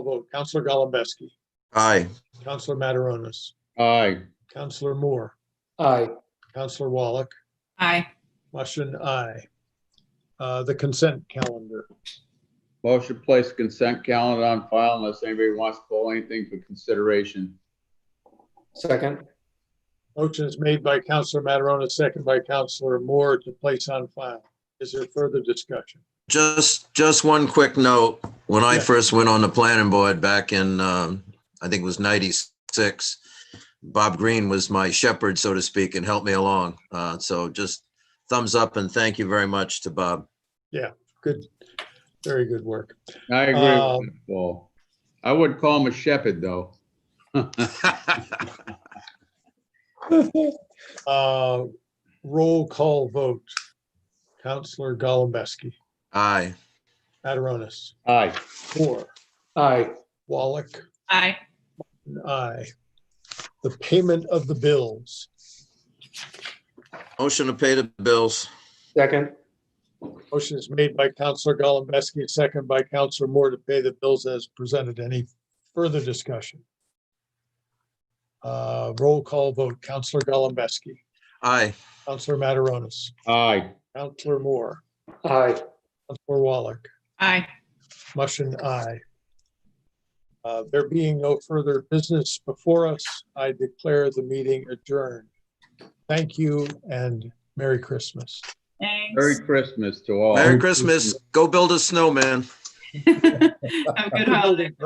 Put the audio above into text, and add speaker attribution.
Speaker 1: vote. Counselor Golembeski,
Speaker 2: Aye.
Speaker 1: Counselor Mataronis,
Speaker 3: Aye.
Speaker 1: Counselor Moore,
Speaker 4: Aye.
Speaker 1: Counselor Wallach,
Speaker 5: Aye.
Speaker 1: motion aye. Uh, The consent calendar.
Speaker 3: Motion to place consent calendar on file unless anybody wants to pull anything for consideration.
Speaker 4: Second.
Speaker 1: Motion is made by Counselor Mataronis, second by Counselor Moore to place on file. Is there further discussion?
Speaker 2: Just, just one quick note. When I
Speaker 1: Yeah.
Speaker 2: first went on the planning board back in, um, I think it was ninety-six, Bob Green was my shepherd, so to speak, and helped me along. Uh, so just thumbs up and thank you very much to Bob.
Speaker 1: Good, very good work.
Speaker 3: I agree
Speaker 1: Um,
Speaker 3: with that, Paul. I would call him a shepherd, though.
Speaker 1: Uh, Roll call vote. Counselor Golembeski,
Speaker 2: Aye.
Speaker 1: Mataronis,
Speaker 3: Aye.
Speaker 1: Moore,
Speaker 4: Aye.
Speaker 1: Wallach,
Speaker 5: Aye.
Speaker 1: Aye. The payment of the bills.
Speaker 2: Motion to pay the bills.
Speaker 4: Second.
Speaker 1: Motion is made by Counselor Golembeski, second by Counselor Moore to pay the bills as presented. Any further discussion? Uh, Roll call vote. Counselor Golembeski,
Speaker 2: Aye.
Speaker 1: Counselor Mataronis,
Speaker 3: Aye.
Speaker 1: Counselor Moore,
Speaker 4: Aye.
Speaker 1: Counselor Wallach,
Speaker 5: Aye.
Speaker 1: Mushin, aye. Uh, There being no further business before us, I declare the meeting adjourned. Thank you and Merry Christmas.
Speaker 3: Merry
Speaker 5: Thanks.
Speaker 3: Christmas to all.
Speaker 2: Merry Christmas. Go build a snowman.
Speaker 5: Have a good holiday.